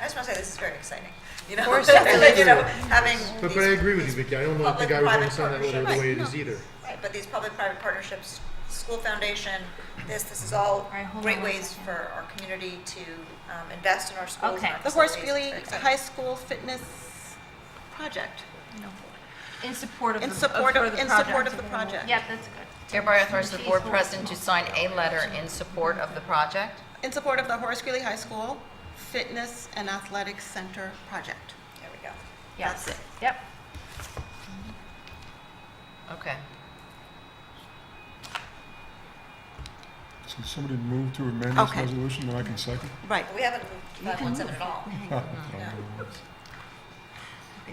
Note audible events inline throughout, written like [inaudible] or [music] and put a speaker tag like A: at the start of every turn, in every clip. A: I just want to say this is very exciting. You know,
B: course,
A: [laughs] like, you know, having
C: But, but I
A: these-
C: agree with you, Vicky. I don't know, I think I would
A: Public-private
C: understand that letter the way it is either.
A: Right, but these public-private partnerships, school foundation, this, this is all
B: right, hold
A: great
B: on one
A: ways
B: second.
A: for our community to um, invest in our schools. and
B: Okay.
A: our
D: The Horace
A: facilities.
D: Greeley
A: It's very exciting.
D: High School Fitness Project,
B: In support of
D: in
B: the-
D: support
B: for
D: of,
B: the
D: in support
B: project.
D: of the project.
B: Yep, that's good.
E: Hereby authorize the board president to sign a letter in support of the project.
D: In support of the Horace Greeley High School Fitness and Athletics Center Project.
A: There we go.
B: Yes.
A: That's it.
B: Yep.
E: Okay.
F: So somebody move to amend this
D: Okay.
F: resolution, then I can second.
D: Right.
A: We haven't moved to 517 at all.
F: Ah, [laughs] that's what I'm doing.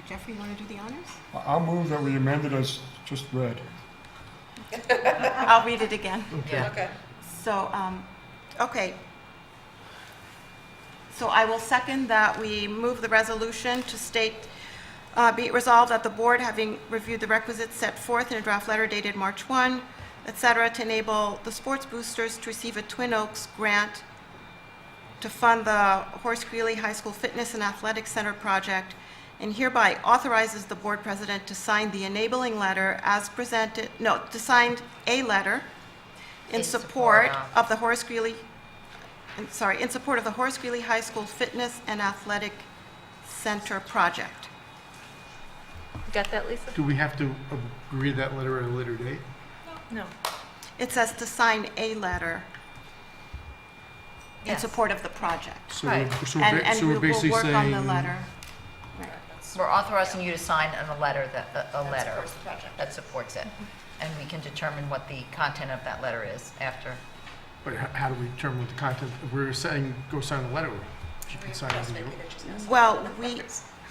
D: Jeffrey, you want to do the honors?
F: I- I'll move that we amended as just read.
D: [laughs] I'll read it again.
E: Yeah.
A: Okay.
D: So, um, okay. So I will second that we move the resolution to state, uh, be it resolved that the board, having reviewed the requisites set forth in a draft letter dated March 1, et cetera, to enable the sports boosters to receive a Twin Oaks grant to fund the Horace Greeley High School Fitness and Athletic Center project, and hereby authorizes the board president to sign the enabling letter as presented, no, to sign a letter in
E: In
D: support
E: support
D: of the Horace Greeley, I'm sorry, in support of the Horace Greeley High School Fitness and Athletic Center project.
B: Got that, Lisa?
C: Do we have to agree to that letter at a later date?
B: No.
D: It says to sign a letter in
E: Yes.
D: support of the project.
C: So we're-
E: Right.
C: so
D: And,
C: we're ba-
D: and
C: so
D: we
C: we're
D: will
C: basically
D: work on the
C: saying-
D: letter.
E: We're authorizing you to sign on a letter that, a- a letter.
A: supports the project.
E: That supports it. And we can determine what the content of that letter is after.
C: But h- how do we determine what the content, if we're saying, go sign the letter, you can sign it. as you-
D: Well, we,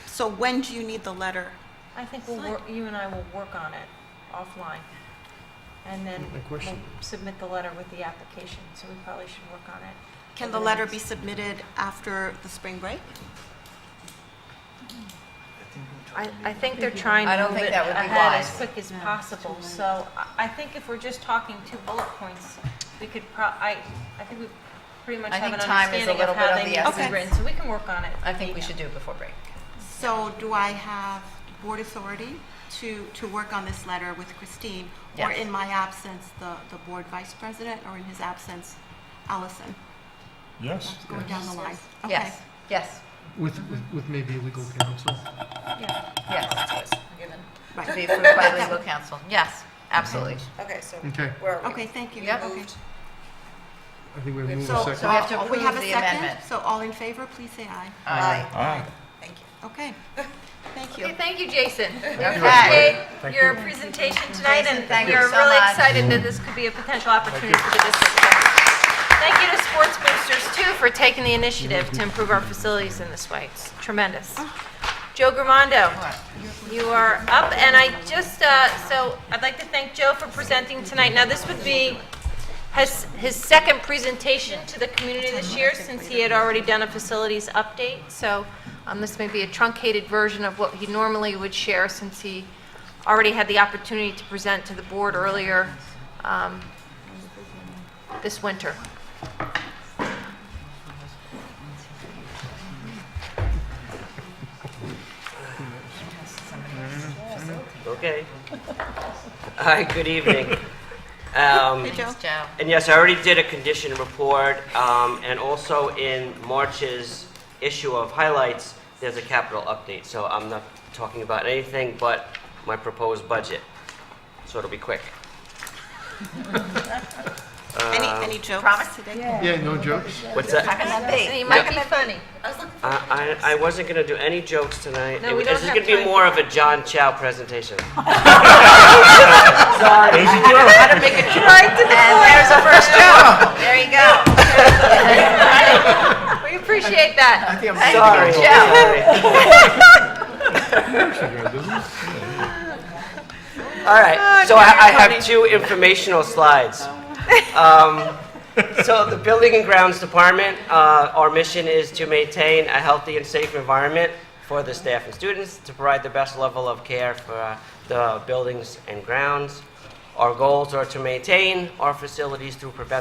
D: so when do you need the letter?
G: I think we'll, wor- you and I will work on it offline, and then
C: My
G: we'll
C: question.
G: submit the letter with the application, so we probably should work on it.
D: Can the letter be submitted after the spring break?
G: I, I think they're trying
E: I
G: to
E: don't
G: move
E: think
G: it
E: that would be
G: ahead as
E: wise.
G: quick as
D: No, it's
G: possible,
D: too late.
G: so I, I think if we're just talking two bullet points, we could pro, I, I think we pretty much
E: I
G: have an
E: think time is a
G: understanding
E: little
G: of how
E: bit of
G: they
E: the
G: need to
D: essence.
G: be written, so we can work on it.
E: I think we
G: Yeah.
E: should do it before break.
D: So do I have board authority to, to work on this letter with Christine? Or
E: Yes.
D: in my absence, the, the board vice president, or in his absence, Allison?
F: Yes?
D: That's Going down the line. Okay.
E: Yes, yes,
C: With, with- with maybe legal counsel.
B: [laughs]
E: yes. To be
D: Right.
E: approved by legal counsel. Yes, absolutely.
F: Mm-hmm.
A: Okay, so
C: Okay,
A: where are we?
D: Okay, thank you.
E: Yep.
D: Okay.
C: I think we have moved
D: So,
C: a
D: so
E: we
C: second.
E: have to
D: all- we have a
E: approve the
D: second?
E: amendment.
D: So all in favor, please say aye.
E: Aye.
F: Aye.
A: Thank you.
D: Okay, thank you.
B: Okay, thank you, Jason. We
E: Okay.
B: appreciate your presentation tonight, and
E: Thank you
B: we're
E: so
B: really
E: much.
B: excited that this could be a potential opportunity for the district. Thank you to Sports Boosters, too, for taking the initiative to improve our facilities in this way. It's tremendous. Joe Gramondo, you are up, and I just, uh, so I'd like to thank Joe for presenting tonight. Now, this would be his his second presentation to the community this year, since he had already done a facilities update. So um, this may be a truncated version of what he normally would share, since he already had the opportunity to present to the board earlier um, this winter.
H: Okay. Hi, good evening. Um,
D: Hey, Joe.
E: Joe.
H: And yes, I already did a condition report, um, and also in March's issue of highlights, there's a capital update, so I'm not talking about anything but my proposed budget. So it'll be quick.
D: Any, any jokes? Promise today?
C: Yeah, no jokes.
H: What's that?
B: And he might be funny.
H: I, I, I wasn't gonna do any jokes tonight.
B: No, we
H: It-
B: don't
H: This is
B: have
H: gonna be
B: time
H: more of a John Chow presentation.
E: And there's a first Joe. There you go. [laughs]
B: We appreciate that.
H: Sorry. Sorry. [laughs] All right, so I, I have two informational slides. Um, so the Building and Grounds Department, uh, our mission is to maintain a healthy and safe environment for the staff and students, to provide the best level of care for uh, the buildings and grounds. Our goals are to maintain our facilities through preventive